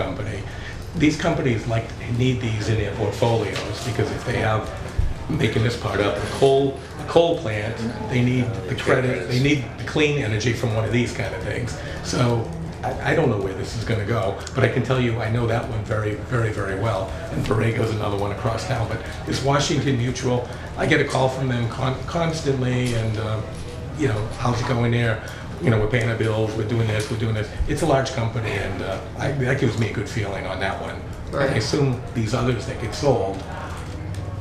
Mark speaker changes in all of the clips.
Speaker 1: company. These companies like, need these in their portfolios, because if they have, making this part up, a coal, a coal plant, they need the credit, they need the clean energy from one of these kind of things. So I, I don't know where this is gonna go, but I can tell you, I know that one very, very, very well. And Borrego's another one across town, but this Washington Mutual, I get a call from them con- constantly, and, uh, you know, how's it going there? You know, we're paying our bills, we're doing this, we're doing this. It's a large company, and uh, I, that gives me a good feeling on that one.
Speaker 2: Right.
Speaker 1: I assume these others that get sold,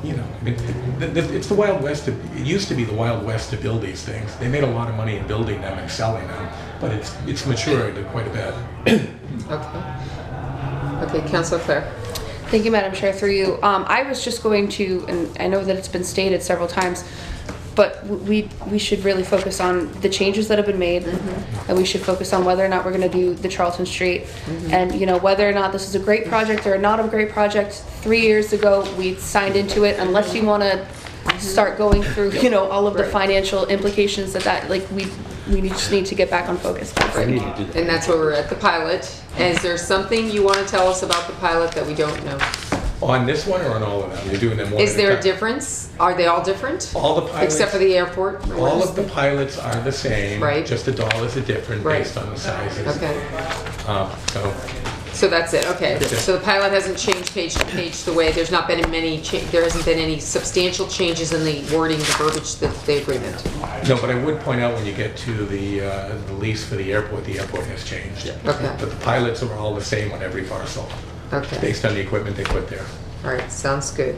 Speaker 1: you know, I mean, th- th- it's the Wild West. To, it used to be the Wild West to build these things. They made a lot of money in building them and selling them, but it's it's matured quite a bit.
Speaker 2: Okay. Okay, Councilor Clare.
Speaker 3: Thank you, Madam Chair, through you. Um, I was just going to, and I know that it's been stated several times, but w- we, we should really focus on the changes that have been made. And we should focus on whether or not we're gonna do the Charlton Street. And, you know, whether or not this is a great project or not a great project. Three years ago, we signed into it, unless you wanna start going through, you know, all of the
Speaker 2: Right.
Speaker 3: financial implications that that, like, we, we just need to get back on focus.
Speaker 4: need to do that.
Speaker 2: And that's where we're at, the pilot. Is there something you want to tell us about the pilot that we don't know?
Speaker 1: On this one or on all of them? You're doing them one.
Speaker 2: Is
Speaker 1: at
Speaker 2: there a
Speaker 1: time?
Speaker 2: difference? Are they all different?
Speaker 1: All the pilots,
Speaker 2: Except for the airport?
Speaker 1: all of the pilots are the same.
Speaker 2: Right.
Speaker 1: Just the dollars are different
Speaker 2: Right.
Speaker 1: based on the sizes.
Speaker 2: Okay,
Speaker 1: Uh, so
Speaker 2: so that's it, okay. So the pilot hasn't changed page to page the way, there's not been many, cha- there hasn't been any substantial changes in the wording, the verbiage, the, the agreement.
Speaker 1: No, but I would point out when you get to the, uh, the lease for the airport, the airport has changed.
Speaker 2: Okay.
Speaker 1: But the pilots are all the same on every parcel,
Speaker 2: Okay.
Speaker 1: based on the equipment they put there.
Speaker 2: All right, sounds good.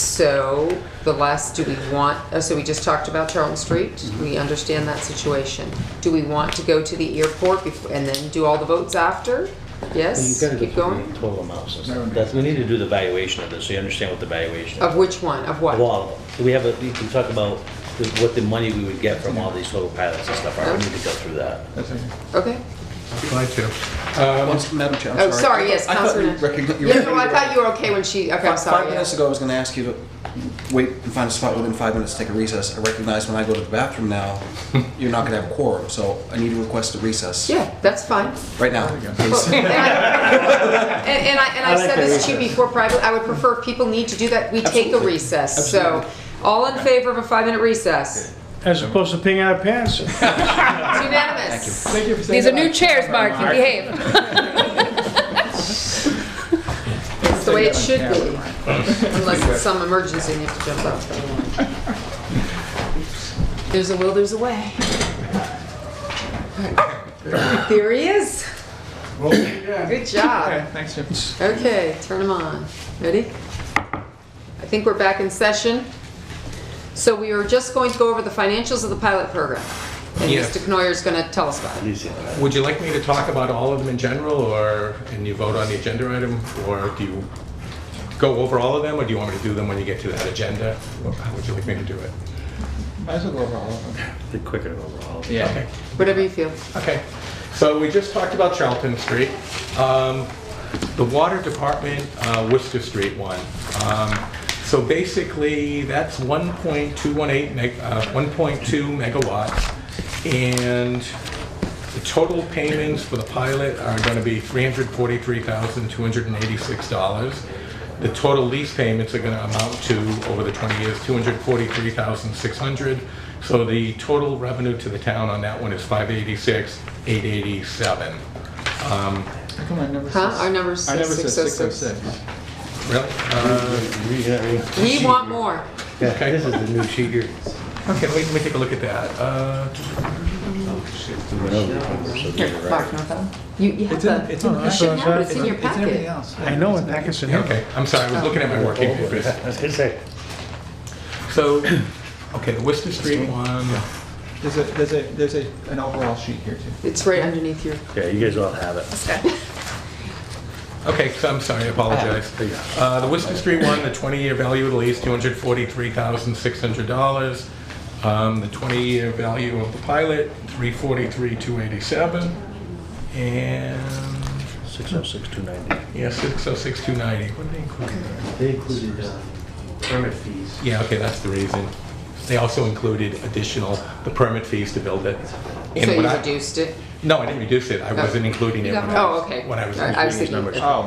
Speaker 2: So the last, do we want, uh, so we just talked about Charlton Street.
Speaker 5: Mm-hmm.
Speaker 2: We understand that situation. Do we want to go to the airport before, and then do all the votes after?
Speaker 4: You've
Speaker 2: Yes,
Speaker 4: got to go
Speaker 2: keep
Speaker 4: through the
Speaker 2: going?
Speaker 4: total amounts and stuff. That's, we need to do the valuation of this, so you understand what the valuation
Speaker 2: Of
Speaker 4: is.
Speaker 2: which one, of
Speaker 4: Of
Speaker 2: what?
Speaker 4: all of them. Do we have a, we can talk about the- what the money we would get from all these total pilots and stuff. are. We need to go through that.
Speaker 2: Okay,
Speaker 1: Glad to. Um,
Speaker 5: Once- Uh, Madam Chair, I'm
Speaker 2: Oh,
Speaker 5: sorry.
Speaker 2: sorry, yes,
Speaker 5: I thought- I thought
Speaker 2: Councilor
Speaker 5: you
Speaker 2: Nash.
Speaker 5: recogni- you
Speaker 2: yeah, no, I
Speaker 5: recognized-
Speaker 2: thought you were okay when she, okay, I'm
Speaker 5: Five-
Speaker 2: sorry.
Speaker 5: Five
Speaker 2: yeah.
Speaker 5: minutes ago, I was going to ask you to wait and find a spot within five minutes to take a recess. I recognize when I go to the bathroom now, you're not going to have a quorum, so I need to request a recess.
Speaker 2: Yeah, that's fine.
Speaker 5: Right now,
Speaker 2: Well,
Speaker 5: please.
Speaker 2: And I, and and I, and I
Speaker 4: I like
Speaker 2: said
Speaker 4: the
Speaker 2: this to you
Speaker 4: recess.
Speaker 2: before privately, I would prefer if people need to do that, we take a
Speaker 5: Absolutely.
Speaker 2: recess. So, all in favor of a five-minute recess?
Speaker 6: As opposed to peeing in our pants.
Speaker 2: It's unanimous.
Speaker 3: These are new chairs, Mark, you behave.
Speaker 2: It's the way it should be. Unless it's some emergency and you have to jump out. There's a will, there's a way. There he is. Good job.
Speaker 7: Thanks, Jim.
Speaker 2: Okay, turn him on. Ready? I think we're back in session. So we are just going to go over the financials of the pilot program. And
Speaker 1: Yes.
Speaker 2: Mr. Knoyer's going to tell us about it.
Speaker 4: Easy.
Speaker 1: Would you like me to talk about all of them in general, or, and you vote on the agenda item? Or do you go over all of them, or do you want me to do them when you get to that agenda? Or How would you like me to do it?
Speaker 7: Might as well go over all of them.
Speaker 4: The quicker overall.
Speaker 7: Yeah.
Speaker 1: Okay.
Speaker 2: Whatever you feel.
Speaker 1: Okay, so we just talked about Charlton Street. Um, The Water Department, uh, Worcester Street one. Um, So basically, that's 1.218, meg- uh, 1.2 megawatts. And the total payments for the pilot are going to be $343,286. The total lease payments are going to amount to, over the 20 years, $243,600. So the total revenue to the town on that one is 586,887. Um,
Speaker 7: How come I never
Speaker 2: Huh?
Speaker 7: says-
Speaker 2: Our number's
Speaker 7: I never said
Speaker 2: 606.
Speaker 7: 606.
Speaker 1: Really? Uh,
Speaker 2: We want more.
Speaker 1: Okay.
Speaker 4: This is the new sheet here.
Speaker 1: Okay, let me- let me take a look at that. Uh,
Speaker 4: We went over the numbers, so these are
Speaker 2: Mark,
Speaker 4: right.
Speaker 2: you want that one? You, you have
Speaker 7: It's in,
Speaker 2: the,
Speaker 7: it's in.
Speaker 6: I
Speaker 2: you
Speaker 6: saw
Speaker 2: should have it,
Speaker 6: that.
Speaker 2: it's in your
Speaker 7: It's in everything
Speaker 2: packet.
Speaker 7: else.
Speaker 6: I know, in Pakistan.
Speaker 1: Okay, I'm sorry, I was looking at my working papers.
Speaker 4: I was gonna say.
Speaker 1: So, okay, the Worcester Street one,
Speaker 7: There's a, there's a, there's a, an overall sheet here too.
Speaker 2: It's right underneath your.
Speaker 4: Yeah, you guys all have it.
Speaker 1: okay, so I'm sorry, I apologize.
Speaker 4: There you go.
Speaker 1: Uh, The Worcester Street one, the 20-year value of the lease, $243,600. Um, The 20-year value of the pilot, 343,287. And,
Speaker 4: Six oh six two ninety.
Speaker 1: yeah, 606,290. What did they include in there?
Speaker 4: They included uh, permit fees.
Speaker 1: Yeah, okay, that's the reason. They also included additional, the permit fees to build it. And
Speaker 2: So
Speaker 1: what
Speaker 2: you
Speaker 1: I-
Speaker 2: reduced it.
Speaker 1: No, I didn't reduce it, I wasn't including it when I
Speaker 2: Oh,
Speaker 1: was,
Speaker 2: okay.
Speaker 1: when I was
Speaker 2: All right, I was
Speaker 1: including these
Speaker 2: Oh, thinking-
Speaker 1: numbers.
Speaker 7: Oh,